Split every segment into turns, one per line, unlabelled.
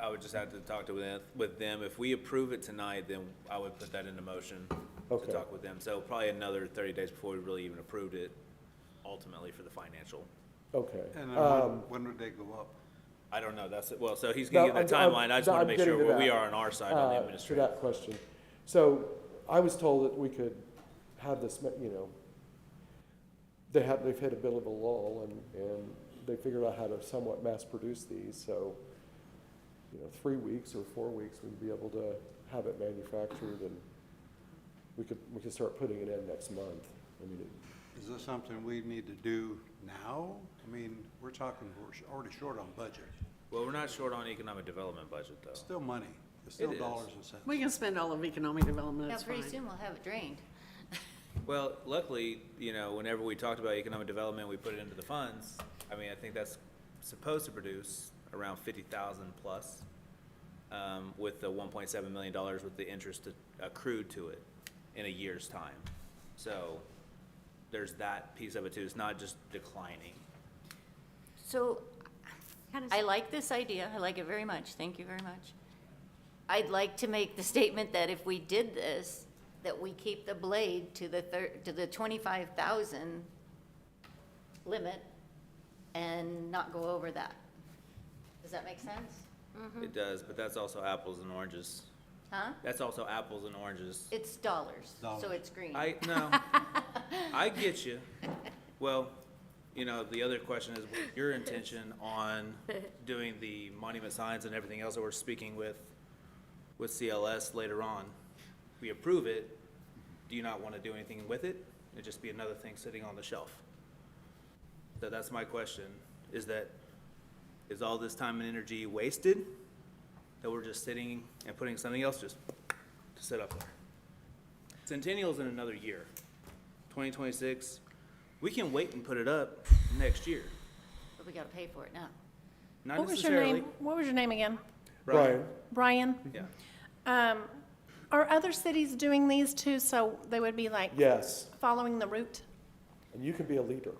I would just have to talk to them, with them. If we approve it tonight, then I would put that into motion to
Okay.
talk with them. So probably another thirty days before we really even approved it ultimately for the financial.
Okay.
And then
Um,
when, when would they go up?
I don't know, that's, well, so he's gonna
No,
give that
I'm- I'm-
timeline. I just
no,
wanna
I'm
make sure
getting to
where we
that.
are on our side on the
uh, To
administration.
that question. So I was told that we could have this, ma- you know, they have, they've hit a bit of a lull and, and they figured out how to somewhat mass produce these, so, you know, three weeks or four weeks, we'd be able to have it manufactured and we could, we could start putting it in next month. I mean, it-
Is this something we need to do now? I mean, we're talking, we're sh- already short on budget.
Well, we're not short on economic development budget
It's
though.
still money. It's still
It is.
dollars and cents.
We can spend all of economic development,
Yeah,
that's
pretty
fine.
soon we'll have it drained.
Well, luckily, you know, whenever we talked about economic development, we put it into the funds. I mean, I think that's supposed to produce around fifty thousand plus, um, with the one point seven million dollars with the interest accrued to it in a year's time. So there's that piece of it too. It's not just declining.
So
How does-
I like this idea. I like it very much. Thank you very much. I'd like to make the statement that if we did this, that we keep the blade to the thir, to the twenty-five thousand limit and not go over that. Does that make sense?
It does, but that's also apples and oranges.
Huh?
That's also apples and oranges.
It's dollars, so
Dollars.
it's green.
I, no, I get you. Well, you know, the other question is your intention on doing the monument signs and everything else that we're speaking with, with CLS later on. We approve it, do you not want to do anything with it? It'd just be another thing sitting on the shelf. So that's my question, is that, is all this time and energy wasted? That we're just sitting and putting something else just to sit up there? Centennial's in another year, 2026. We can wait and put it up next year.
But we gotta pay for it now.
Not
What was your
necessarily.
name? What was your name again?
Brian,
Brian?
Yeah.
Um, are other cities doing these too, so they would be like
yes,
following the route?
and you can be a leader.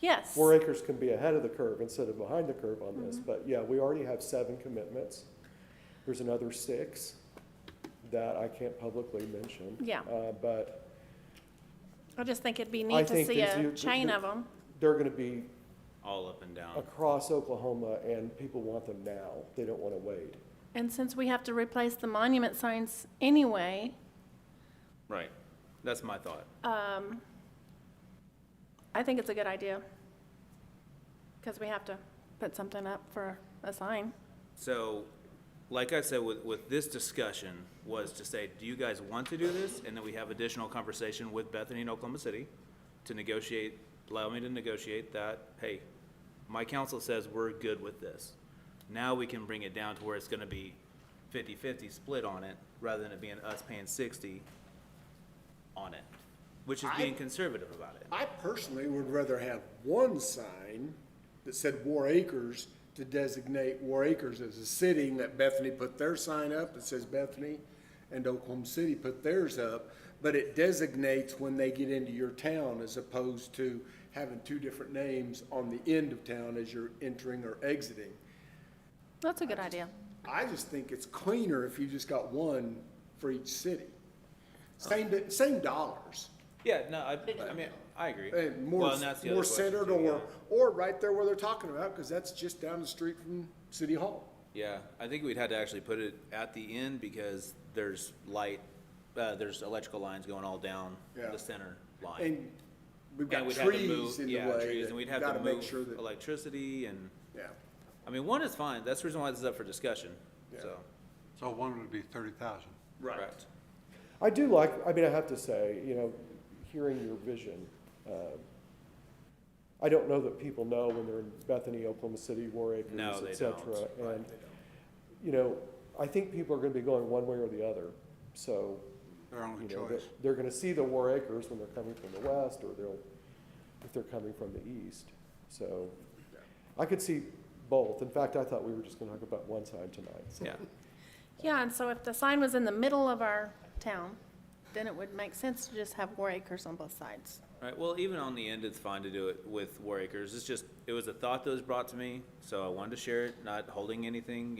Yes.
Four acres can be ahead of the curve instead of behind the curve on this,
Mm-hmm.
but yeah, we already have seven commitments. There's another six that I can't publicly mention.
Yeah.
Uh, but
I just think it'd be
I
neat to
think
see
these-
a
you-
chain
you-
of them.
they're gonna be
All up and down.
across Oklahoma and people want them now. They don't wanna wait.
And since we have to replace the monument signs anyway,
Right. That's my thought.
um, I think it's a good idea. Because we have to put something up for a sign.
So, like I said, with, with this discussion was to say, do you guys want to do this? And then we have additional conversation with Bethany in Oklahoma City to negotiate, allow me to negotiate that, hey, my council says we're good with this. Now we can bring it down to where it's gonna be 50-50 split on it, rather than it being us paying sixty on it, which is being conservative about it.
I personally would rather have one sign that said War Acres to designate War Acres as a city and that Bethany put their sign up that says Bethany and Oklahoma City put theirs up, but it designates when they get into your town as opposed to having two different names on the end of town as you're entering or exiting.
That's a good idea.
I just think it's cleaner if you just got one for each city. Same, same dollars.
Yeah, no, I, I mean, I agree.
Uh,
Well,
more,
and that's the other
more
question
centered
too,
or,
yeah.
or right there where they're talking about, because that's just down the street from City Hall.
Yeah, I think we'd had to actually put it at the end because there's light, uh, there's electrical lines going all down
Yeah.
the center line.
And we've
And
got
we'd have to
trees
move,
in the
yeah,
way
trees, and we'd
that
have to
gotta make sure
move
that,
electricity and,
yeah.
I mean, one is fine, that's the reason why this is up for discussion,
Yeah.
so.
So one would be thirty thousand.
correct.
I do like, I mean, I have to say, you know, hearing your vision, um, I don't know that people know when they're in Bethany, Oklahoma City, War Acres,
No, they
et cetera.
don't.
And, you know, I think people are gonna be going one way or the other, so,
Their only
you know,
choice.
they're, they're gonna see the War Acres when they're coming from the west, or they'll, if they're coming from the east, so. I could see both. In fact, I thought we were just gonna talk about one side tonight, so.
Yeah,
Yeah, and so if the sign was in the middle of our town, then it would make sense to just have war acres on both sides.
right, well, even on the end, it's fine to do it with War Acres, it's just, it was a thought that was brought to me, so I wanted to share it, not holding anything,